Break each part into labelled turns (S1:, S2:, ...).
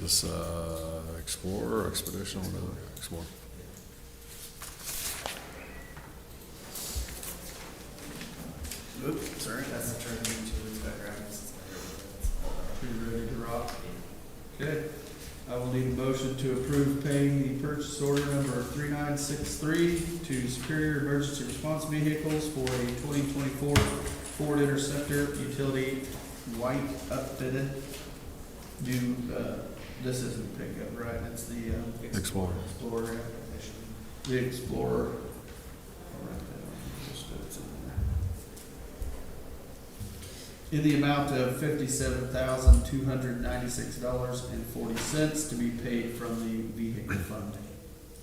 S1: This uh, Explorer, Expedition, whatever, Explorer.
S2: Oops, sorry. That's the turn into its background.
S3: Pretty ready to rock. Okay, I will need a motion to approve paying the purchase order number three nine six three to Superior Emergency Response Vehicles for a twenty twenty-four Ford Interceptor Utility White updated. New, uh, this isn't pickup, right? It's the, um,
S1: Explorer.
S3: Explorer, yeah. the Explorer. I'll write that on, just so it's in there. In the amount of fifty-seven thousand, two hundred ninety-six dollars and forty cents to be paid from the vehicle fund.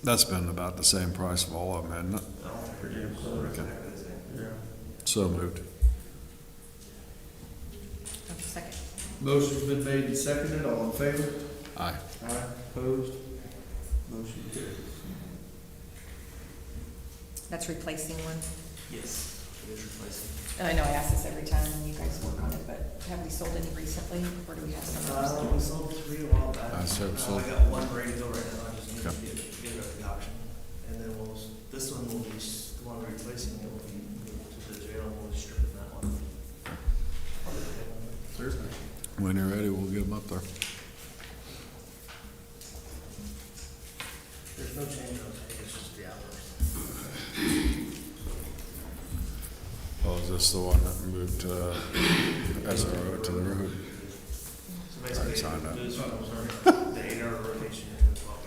S1: That's been about the same price of all of them, hasn't
S2: I don't think we're doing solar exactly the same.
S3: Yeah.
S1: it? So moved.
S4: Second.
S3: Motion's been made and seconded, all in favor?
S1: Aye.
S3: Aye, opposed? Motion carries.
S4: That's replacing one.
S2: Yes. It is replacing.
S4: And I know I ask this every time and you guys work on it, but have we sold any recently or do we have
S2: Uh,
S4: some?
S2: we sold three a while back.
S1: I said
S2: Uh,
S1: sold.
S2: I got one ready to go right now, I just need to
S1: Okay.
S2: get, get it at the auction. And then we'll, s- this one will be, s- the one we're replacing, it will be moved to the jail, and we'll strip that one.
S3: Certainly.
S1: When you're ready, we'll get them up there.
S2: There's no change on it, it's just the hours.
S1: Oh, is this the one that moved uh, SRO to the road?
S2: So
S1: Alright,
S2: basically,
S1: signed up.
S2: those ones are the eight hour rotation and the twelve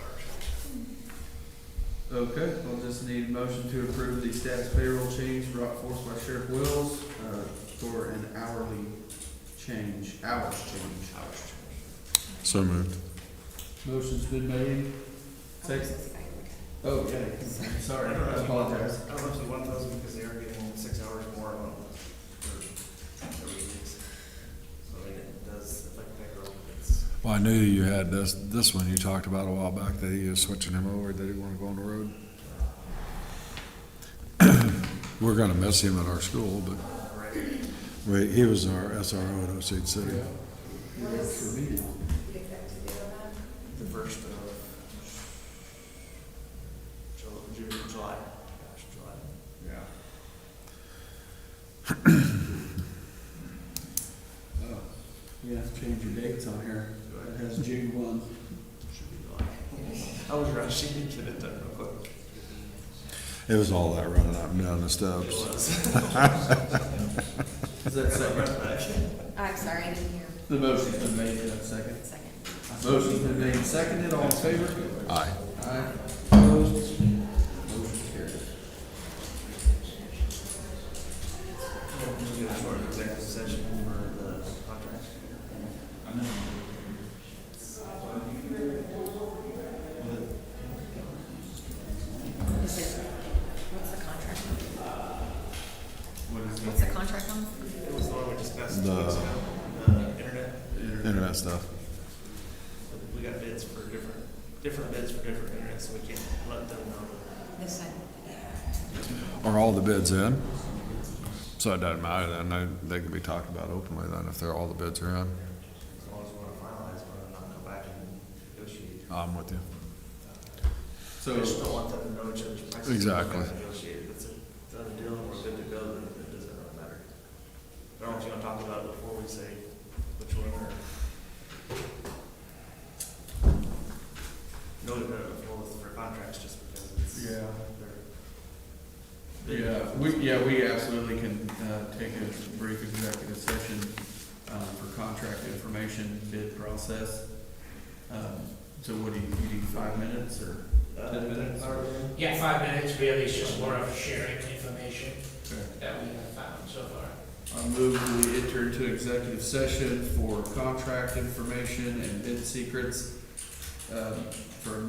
S2: hours.
S3: Okay, we'll just need a motion to approve the status payroll change brought forth by Sheriff Wills, uh, for an hourly change, hours change.
S2: Hours change.
S1: So moved.
S3: Motion's been made. Second. Oh, yeah, sorry, I apologize.
S2: I was up to one thousand because they are getting six hours more on for every week. So I mean, it does affect payroll. It's
S1: Well, I knew you had this, this one you talked about a while back, that he was switching him over, that he wanted to go on the road. We're gonna miss him at our school, but
S2: uh, right.
S1: we- he was our SRO at Osage City.
S3: You guys should meet it.
S2: The first of Ju- Ju- July, gosh, July.
S3: Yeah. Oh, you have to change your dates on here. It has June one.
S2: Should be July. I was rushing to get it done real quick.
S1: It was all that running up and down the
S2: It
S1: steps.
S2: was.
S3: Is that second?
S4: I'm sorry, I didn't hear.
S3: The motion's been made, is that second?
S4: Second.
S3: Motion's been made, and seconded, all in favor?
S1: Aye.
S3: Aye. Opposed? Motion carries.
S2: Just do a short executive session for the contract.
S4: Is it, what's the contract?
S3: What is
S4: What's the contract on?
S2: It was the one we discussed two
S1: The-
S2: weeks ago, the internet.
S1: Internet stuff.
S2: We got bids for different, different bids for different internet, so we can't let them know.
S4: This side?
S1: Are all the bids in? So it doesn't matter then, they, they can be talked about openly then if they're, all the bids are in.
S2: As long as we want to finalize one and not go back and negotiate.
S1: I'm with you.
S2: We just
S3: So,
S2: don't want them to know each other's prices.
S1: Exactly.
S2: We're not Negotiate, If it's a done deal, and we're good to go, then it doesn't really matter. I don't you want to talk about it before we say which one or. No, no, well, for contracts, just because it's.
S3: yeah,
S2: they're-
S3: yeah, we, yeah, we absolutely can, uh, take a brief executive session, um, for contract information bid process. Um, so what do you, you need five minutes or?
S2: Uh,
S3: Ten minutes.
S2: or-
S5: Yeah, five minutes really is just more of sharing information
S3: Okay.
S5: that we have found so far.
S3: I move we enter into executive session for contract information and bid secrets, um, for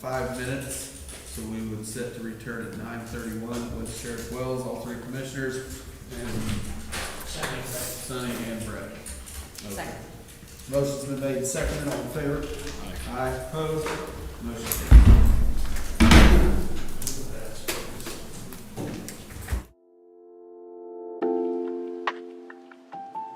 S3: five minutes. So we would set to return at nine thirty-one with Sheriff Wells, all three commissioners, and
S5: Sounding right.
S3: Sonny and Brett.
S4: Second.
S3: Motion's been made, seconded, all in favor? Aye. opposed? Motion carries.